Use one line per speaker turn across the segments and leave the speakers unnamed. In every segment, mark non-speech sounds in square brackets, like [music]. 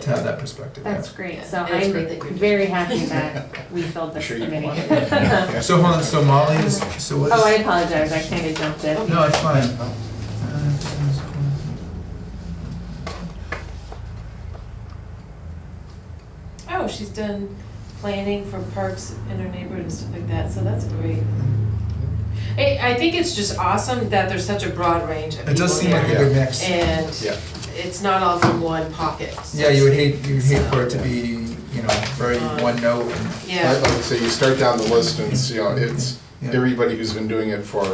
to have that perspective. yeah.
That's great, so
Yeah, it's
I'm
great that you're doing
very happy
[laughs]
that we filled this
Sure you
committee.
wanted
[laughs] Oh,
So hold on, so Molly is, so what is?
I apologize, I kind of jumped in.
No, it's fine.
Oh, she's done planning for parks in her neighborhood and stuff like that, so that's great. I, I think it's just awesome that there's such a broad range of people
It does seem like a
there,
good mix.
And
Yeah.
it's not all from one pocket. so
Yeah,
to
you would
speak.
hate, you would hate for it to
So,
be, you know, very
Uh,
one note and
Like
Yeah,
like I say, you start down the list and it's, you know, it's
Yeah.
everybody who's been doing it for,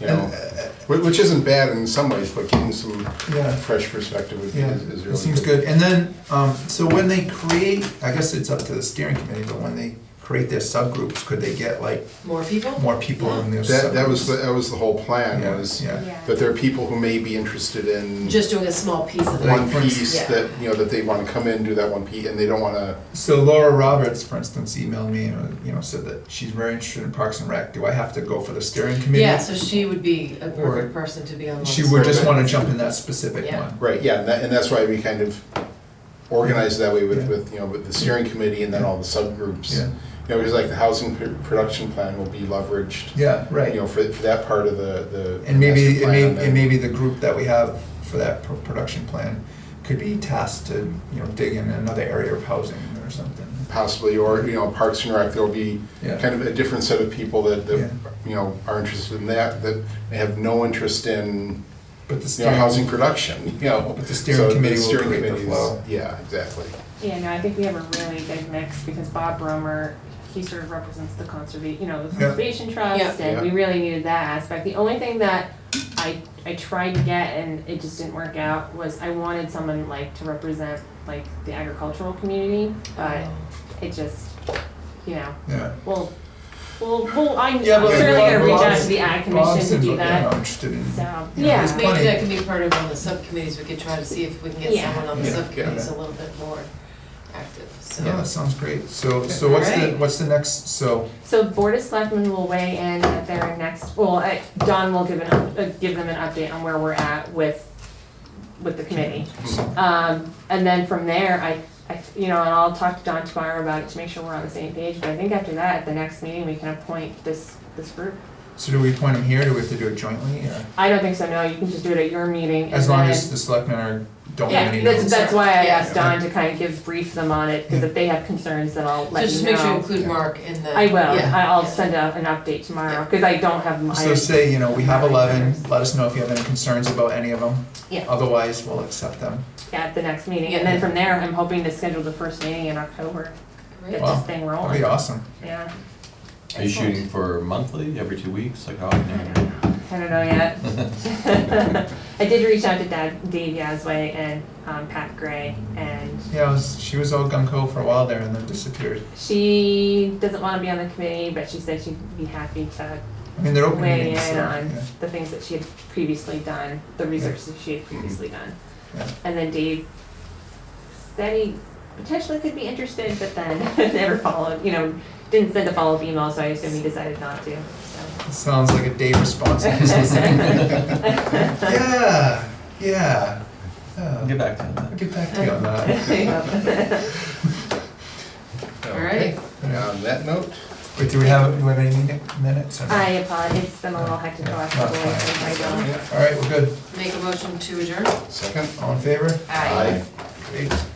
you know,
And, uh,
whi- which isn't bad in some ways, but getting some
Yeah.
fresh perspective would be-
Yeah,
is is really.
it seems good. And then, um, so when they create, I guess it's up to the steering committee, but when they create their subgroups, could they get like
more people?
more people in their subgroups?
That, that was, the- that was the whole plan
Yeah,
was
yeah.
that there are people who may be interested in
Just doing a small piece of
Like,
it.
one
for instance-
piece
Yeah.
that, you know, that they want to come in, do that one piece, and they don't want to,
So Laura Roberts, for instance, emailed me and, uh, you know, said that she's very interested in Parks and Rec. Do I have to go for the steering committee?
Yeah, so she would be a
Or-
perfect person to be on. one
She
side.
would just wanna jump in that specific
Yeah.
one.
right, yeah, and that, and that's why we kind of organized that way
Yeah.
with, with, you know, with the steering committee and then all the subgroups.
Yeah.
You know, because like the housing pr- production plan will be leveraged
Yeah,
you
right.
know, for, for that part of the, the.
And maybe,
master
it
plan,
may,
then-
it may be the group that we have for that pro- production plan could be tasked to, you know, dig in another area of housing or something.
Possibly, or, you know, Parks and Rec, there'll be
Yeah.
kind of a different set of people that,
Yeah.
that, you know, are interested in that, that may have no interest in,
But the
you know,
steering.
housing production, [laughs] you know.
But the steering
So
committee will
steering
create the
committee's-
flow.
Yeah, exactly.
Yeah, no, I think we have a really big mix because Bob Romer, he sort of represents the conserva, you know, the
Yeah.
conservation
Yeah.
trust, and we
Yeah.
really needed that aspect. The only thing that I, I tried to get and it just didn't work out was I wanted someone like to represent like the agricultural community, but
Oh.
it just, you know,
Yeah.
well, well, well, I'm
Yeah, but
certainly gonna reach out
Rob's-
to the ag
Rob's
commission to do
invo- yeah,
that,
I'm interested in.
so,
you know,
yeah.
there's
Maybe
plenty-
that could be part of one of the subcommittees, we could try to see if we can get
Yeah.
someone on the
Yeah.
subcommittees a
Yeah.
little bit more active, so.
Yeah, that sounds great. So, so what's the,
Alright.
what's the next, so,
So Board of Selectmen will weigh in at their next, well, uh, Don will give an, up- uh, give them an update on where we're at with, with the committee. Um, and then from there, I, I, you know, and I'll talk to Don tomorrow about it to make sure we're on the same page, but I think after that, at the next meeting, we can appoint this, this group.
so do we appoint them here? Do we have to do it jointly? or-
I don't think so, no, you can just do it at your meeting and
As long
then-
as the selectmen are, don't have
Yeah,
any
that's,
votes.
that's why I
Yeah.
asked Don to kind of give brief them on it, cause if they have concerns, then I'll
So
let
just
you
make sure you
know.
include Mark in the.
I will,
Yeah.
I- I'll
Yeah.
send out an update tomorrow,
Yeah.
cause I don't have my.
So say, you know, we have eleven, let us know if you have any concerns about any of them.
Yeah.
Otherwise, we'll accept them.
at the next meeting, and then from there, I'm hoping to schedule the first meeting in October, get
Great.
Wow.
this thing
That'd be
rolling,
awesome.
yeah.
Are you
Excellent.
shooting for monthly, every two weeks, like how
I
often?
[laughs] don't know. I don't know
[laughs]
yet. [laughs] I did reach out to Dad, Dave Yazway and, um, Pat Gray, and
Yeah, I was, she was all gung ho for a while there and then disappeared.
she doesn't wanna be on the committee, but she said she'd be happy to
I mean, they're open
weigh
meetings,
in
so,
on
yeah.
the things that she had previously done, the research that she had previously done.
Yeah.
And then Dave said he potentially could be interested, but then [laughs] never followed, you know, didn't send a follow-up email, so I assume he decided not
[laughs]
to, [laughs] so.
It Sounds like a day
[laughs]
response. Yeah, yeah. yeah.
I'll get back to you on
I'll
that.
get back to you on
[laughs]
that.
All right,
And on that note,
Wait, do we have, do we have any minute- minutes? or no?
I apologize, it's been a little hectic the last couple of weeks, so I don't.
yeah,
All right, we're good.
make a motion to adjourn.
second.
All in favor?
Aye.
Great.